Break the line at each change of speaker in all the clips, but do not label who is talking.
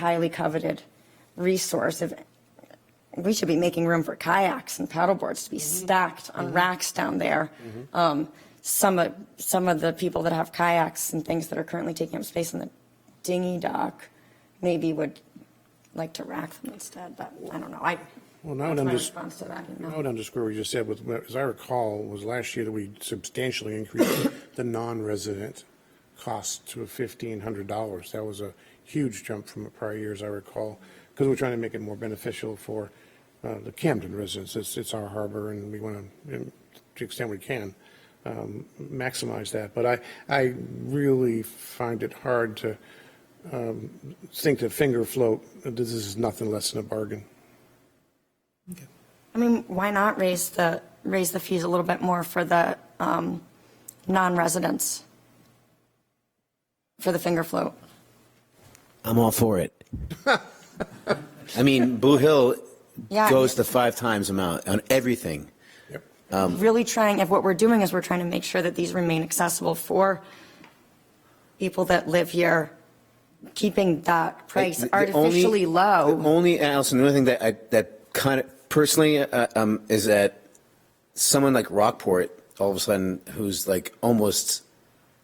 highly coveted resource of we should be making room for kayaks and paddleboards to be
Mm-hmm.
stacked on racks down there. Um, some of some of the people that have kayaks and things that are currently taking up space in the dinghy dock maybe would like to rack them instead, but I don't know. I
Well, now it
that's my
unders-
response to that. You
I would
know?
underscore what you just said, with, as I recall, was last year that we substantially increased the non-resident cost to fifteen hundred dollars. That was a huge jump from the prior years, I recall, because we're trying to make it more beneficial for uh, the Camden residents. It's, it's our harbor, and we want to, to the extent we can, um, maximize that. But I, I really find it hard to um, think to finger float, this is nothing less than a bargain.
I mean, why not raise the raise the fees a little bit more for the um, non-residents for the finger float?
I'm all for it. I mean, Blue Hill
Yeah, I
goes
mean-
to five times amount on everything.
Yep.
really trying, if what we're doing is we're trying to make sure that these remain accessible for people that live here, keeping that price
Like, the- the only-
artificially
The
low.
only, Allison, the only thing that I, that kind of personally, uh, um, is that someone like Rockport, all of a sudden, who's like almost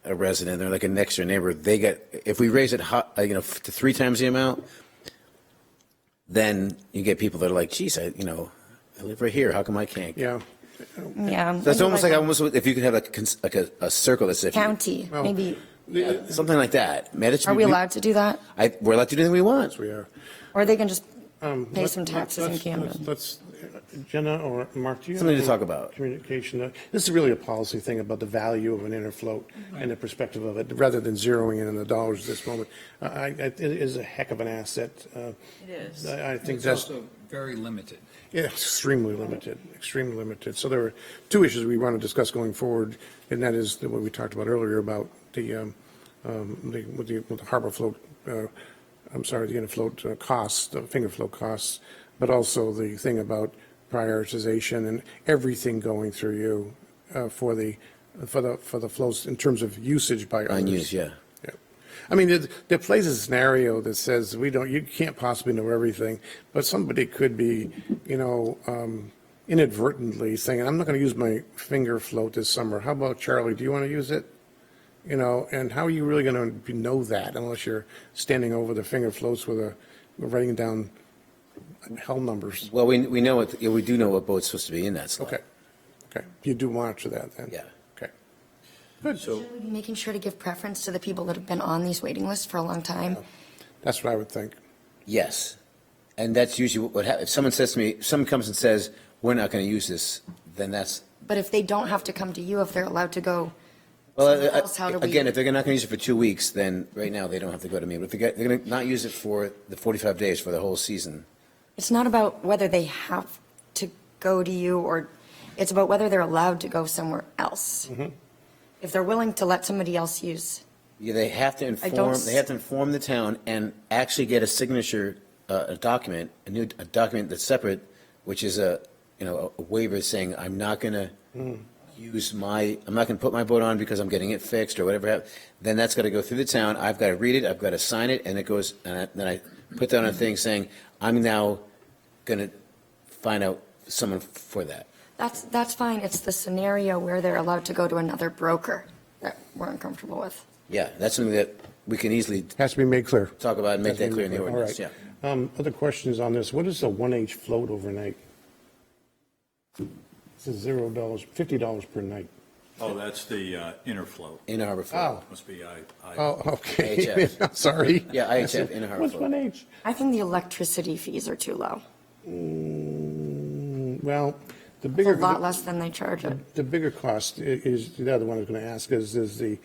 a resident, they're like a next door neighbor, they get, if we raise it hot, you know, to three times the amount, then you get people that are like, geez, I, you know, I live right here, how come I can't?
Yeah.
Yeah.
That's almost like,
a
almost if you could have like a, cons- like a, a circle that's if you-
County,
Well,
maybe.
the-
something like that. Man, it should
Are
be-
we allowed to do that?
I, we're allowed to do anything we want.
We are.
Or they can just
Um,
pay
Let-
some taxes in
Um, let's-
Camden?
Let's, let's- Jenna or Mark, do you? have
Something to
any
talk about.
Communication, uh, this is really a policy thing about the value of an inner float and the perspective of it, rather than zeroing in on the dollars at this moment. I, I, it is a heck of an asset. It is. I I think
It's
that's
also very limited.
yeah, extremely limited, extremely limited. So there are two issues we want to discuss going forward, and that is the what we talked about earlier about the, um, um, the, with the with the harbor float, uh, I'm sorry, the inner float uh, costs, the finger float costs, but also the thing about prioritization and everything going through you, uh, for the, for the, for the flows in terms of usage by others.
Unused, yeah.
Yeah. I mean, there, there plays a scenario that says we don't, you can't possibly know everything, but somebody could be, you know, um, inadvertently saying, I'm not going to use my finger float this summer. How about Charlie? Do you want to use it? You know, and how are you really going to know that unless you're standing over the finger floats with a, writing down hell numbers?
Well, we, we know what, yeah, we do know what boat's supposed to be in that slot.
Okay. Okay. You do monitor that then?
Yeah.
Okay.
Making sure to give preference to the people that have been on these waiting lists for a long time.
That's what I would think.
Yes. And that's usually what, happens. if someone says to me, someone comes and says, we're not going to use this, then that's,
But if they don't have to come to you, if they're allowed to go,
well,
Someone
I- I-
else, how do we-
again, if they're not going to use it for two weeks, then right now they don't have to go to me. But if they get- they're going to not use it for the 45 days for the whole season,
It's not about whether they have to go to you or, it's about whether they're allowed to go somewhere else. If they're willing to let somebody else use,
yeah, they have to inform,
s-
they have to inform the town and actually get a signature, uh, a document, a new, a document that's separate, which is a, you know, a waiver saying, I'm not going to use my, I'm not going to put my boat on because I'm getting it fixed or whatever. hap- Then that's got to go through the town. I've got to read it. I've got to sign it. And it goes, and I- then I put that on a thing saying, I'm now going to find out someone for that.
that's, that's fine. It's the scenario where they're allowed to go to another broker that we're uncomfortable with.
Yeah, that's something that we can easily
Has to be made clear.
talk about and make that
That's
clear in the
really
ordinance,
clear.
yeah.
All right. Um, Other questions on this? What is the 1H float overnight? This is $0, $50 per night.
Oh, that's the uh, inner float.
In Harbor Freight.
Oh.
Must be I, I,
Oh, okay.
IHF.
Sorry.
Yeah, IHF, in Harbor
What's
Float.
1H?
I think the electricity fees are too low.
Mm, Well, the
It's a
bigger.
lot less than they charge it.
The bigger cost i- is, the other one I was going to ask is, is the,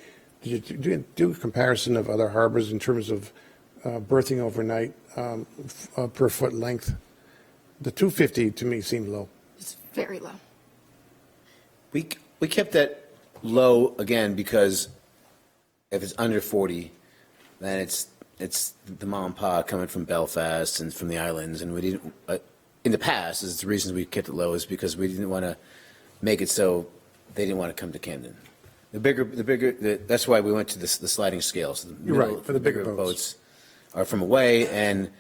do you do- do a comparison of other harbors in terms of uh, berthing overnight um, f- uh, per foot length? The 250 to me seemed low.
It's very low.
We, we kept that low again because if it's under 40, then it's, it's the mom and pa coming from Belfast and from the islands. And we didn't, uh, in the past, is the reason we kept it low is because we didn't want to make it so they didn't want to come to Camden. The bigger, the bigger, the, that's why we went to the, the sliding scales. the
You're right,
middle-
for the bigger boats.
are from away, and